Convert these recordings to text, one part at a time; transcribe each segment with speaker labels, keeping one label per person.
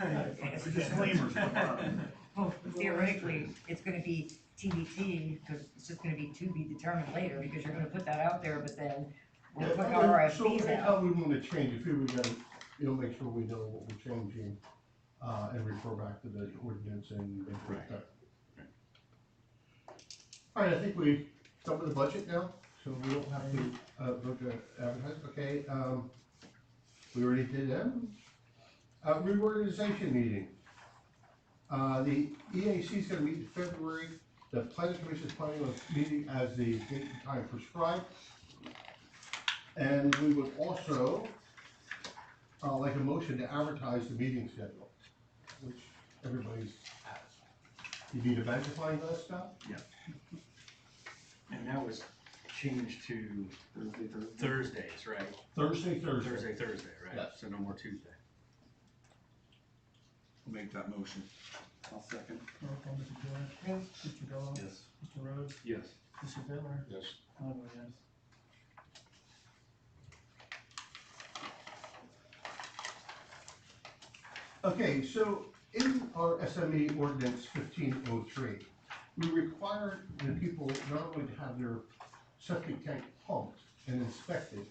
Speaker 1: The disclaimer's at the bottom.
Speaker 2: Well, theoretically, it's gonna be TBT, cause it's just gonna be to be determined later, because you're gonna put that out there, but then we'll put
Speaker 3: So oh.
Speaker 2: RFPs out.
Speaker 3: how we wanna change, if we were gonna, you know, make sure we know what we're changing, uh, and refer back to the ordinance and. and put
Speaker 1: Right.
Speaker 3: that. All right, I think we've done with the budget now, so we don't have to, uh, vote to advertise, okay, um, we already did them. Uh, reorganization meeting. Uh, the EAC is gonna meet in February, the planning commission is planning on meeting as the date and time prescribed. And we would also, uh, like a motion to advertise the meeting schedule, which everybody's has. You need a magnifying glass now?
Speaker 4: And that was changed to
Speaker 1: Thursday, Thursday.
Speaker 4: Thursdays, right?
Speaker 3: Thursday, Thursday.
Speaker 4: Thursday, Thursday, right?
Speaker 3: Yeah.
Speaker 4: So no more Tuesday.
Speaker 1: I'll Make that motion. I'll second.
Speaker 5: Roll call, Mr. Joy.
Speaker 2: Yes.
Speaker 5: Mr. Gallo.
Speaker 1: Yes.
Speaker 5: Mr. Rhodes.
Speaker 1: Yes.
Speaker 5: Mr. Bittler.
Speaker 3: Yes.
Speaker 5: I vote yes.
Speaker 3: Okay, so in our SME ordinance fifteen oh three, we require the people not only to have their septic tank pumped and inspected,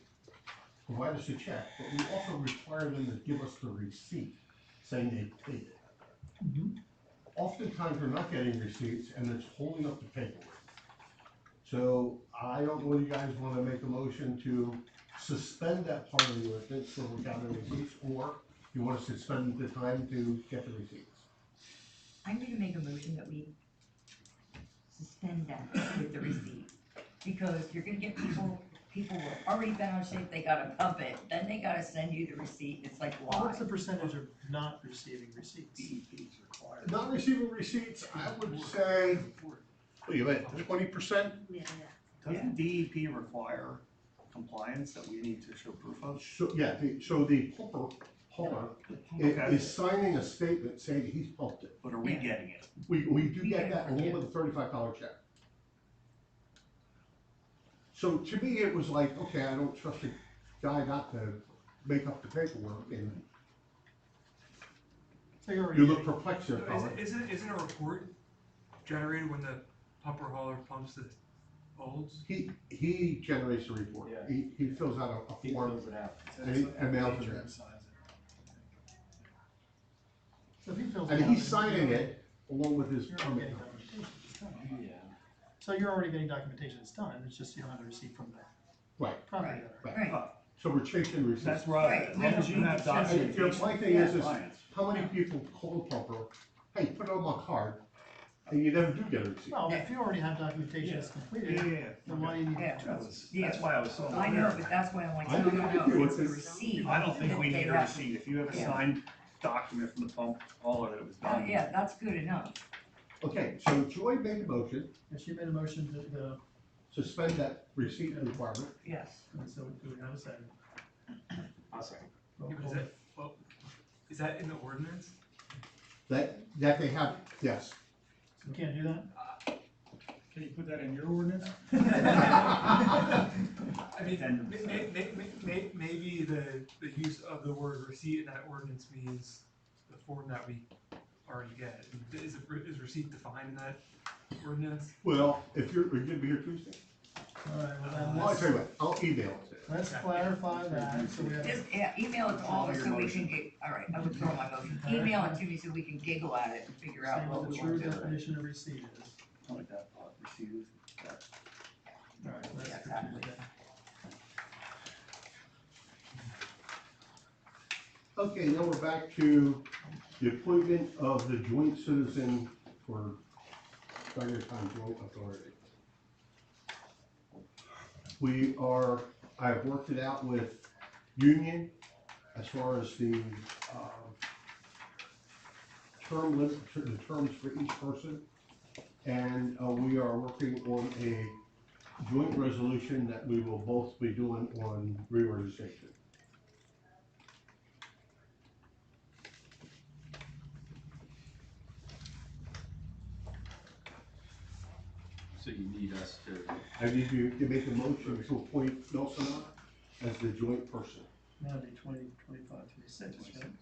Speaker 3: provide us a check, but we also require them to give us the receipt saying they paid it.
Speaker 5: Mhm.
Speaker 3: Oftentimes, we're not getting receipts and it's holding up the paperwork. So I don't know whether you guys wanna make a motion to suspend that part of the ordinance so we gather receipts, or you want us to spend the time to get the receipts?
Speaker 2: I'm gonna make a motion that we suspend that with the receipt, because you're gonna get people, people who are already been on shape, they gotta pump it, then they gotta send you the receipt, it's like, why?
Speaker 5: What's the percentage of not receiving receipts?
Speaker 1: DEP's required.
Speaker 3: Not receiving receipts, I would say, wait, wait, twenty percent?
Speaker 6: Yeah,
Speaker 1: Doesn't DEP require compliance that we need to show proof of?
Speaker 3: So, yeah, the, so the pumper, pumper i-
Speaker 1: Okay.
Speaker 3: is signing a statement saying that he's pumped it.
Speaker 1: But are we
Speaker 2: Yeah.
Speaker 1: getting it?
Speaker 3: We, we do
Speaker 2: We
Speaker 3: get
Speaker 2: get
Speaker 3: that
Speaker 2: it,
Speaker 3: along
Speaker 2: yeah.
Speaker 3: with a thirty-five dollar check. So to me, it was like, okay, I don't trust the guy not to make up the paperwork, and
Speaker 5: So you're already
Speaker 3: you look
Speaker 5: getting-
Speaker 3: perplexed
Speaker 7: So
Speaker 3: at it.
Speaker 7: Isn't, isn't, isn't a report generated when the pumper hauler pumps the olds?
Speaker 3: He, he generates a report.
Speaker 4: Yeah.
Speaker 3: He, he fills out a- a
Speaker 4: He
Speaker 3: form
Speaker 4: fills it out.
Speaker 3: and he- and mails it in.
Speaker 5: So if he fills it
Speaker 3: And
Speaker 5: out,
Speaker 3: he's
Speaker 5: then you're
Speaker 3: signing
Speaker 5: already-
Speaker 3: it along with his
Speaker 5: You're already
Speaker 3: permit.
Speaker 5: getting documentation. It's done.
Speaker 4: Yeah.
Speaker 5: So you're already getting documentation, it's done, it's just you don't have a receipt from the
Speaker 3: Right.
Speaker 5: property owner.
Speaker 3: Right.
Speaker 2: Right,
Speaker 3: So we're chasing receipts.
Speaker 1: That's right.
Speaker 2: Right.
Speaker 1: As long as you have documentation.
Speaker 3: Yeah, my thing is, is-
Speaker 1: Compliance.
Speaker 3: How many people call the pumper, hey, put it on my card, and you never do get a receipt?
Speaker 5: Well, if you already have documentation that's
Speaker 1: Yeah, yeah,
Speaker 5: completed,
Speaker 1: yeah.
Speaker 5: then why do you need?
Speaker 2: yeah,
Speaker 1: That was-
Speaker 2: Yeah.
Speaker 1: That's why I was so.
Speaker 2: I know, but that's why I'm like,
Speaker 3: I
Speaker 2: no,
Speaker 3: don't
Speaker 2: no,
Speaker 3: know if you
Speaker 2: no, it's a
Speaker 3: would-
Speaker 2: receipt.
Speaker 1: I don't think we
Speaker 2: that
Speaker 1: need
Speaker 2: they
Speaker 1: a
Speaker 2: have-
Speaker 1: receipt, if you have a
Speaker 2: Yeah.
Speaker 1: signed document from the pump hauler that it was
Speaker 2: Oh,
Speaker 1: done.
Speaker 2: yeah, that's good enough,
Speaker 3: Okay, so Joy made a motion,
Speaker 5: And she made a motion to the,
Speaker 3: suspend that receipt requirement.
Speaker 2: yes.
Speaker 5: and so do we have a second?
Speaker 4: I'll say.
Speaker 5: Roll
Speaker 7: Is
Speaker 5: call.
Speaker 7: that, well, is that in the ordinance?
Speaker 3: That, that they have, yes.
Speaker 5: We can't do that?
Speaker 8: Can you put that in your ordinance?
Speaker 7: I mean,
Speaker 1: Addendum.
Speaker 7: may, may, may, may- maybe the, the use of the word receipt in that ordinance means the form that we already get. Is, it- is receipt defined in that ordinance?
Speaker 3: Well, if you're, are you gonna be here Tuesday?
Speaker 5: All right, well
Speaker 4: Uh,
Speaker 2: Uh,
Speaker 5: then,
Speaker 3: Well, I'll
Speaker 5: let's,
Speaker 3: tell you what, I'll email it to you.
Speaker 5: let's clarify that, so we have.
Speaker 2: Just, yeah, email it to all of us
Speaker 1: Your
Speaker 2: so we
Speaker 1: motion.
Speaker 2: can get, all right, I withdraw my motion. Email it to me so we can giggle at it and figure out
Speaker 5: Saying
Speaker 2: what
Speaker 5: what
Speaker 2: we
Speaker 5: the true
Speaker 2: want to do.
Speaker 5: definition of receipt is.
Speaker 1: I like that thought, received, that-
Speaker 5: Alright, that's
Speaker 2: Yeah,
Speaker 5: for
Speaker 2: exactly.
Speaker 5: Tuesday.
Speaker 3: Okay, now we're back to the appointment of the joint citizen for Tiger Town Joint Authority. We are, I have worked it out with Union as far as the, um, term limit, the terms for each person. And, uh, we are working on a joint resolution that we will both be doing on reorganization.
Speaker 4: So you need us to,
Speaker 3: I need you to make a motion to appoint Nelson as the joint person.
Speaker 5: Now it'd be twenty, twenty-five, twenty-six, right?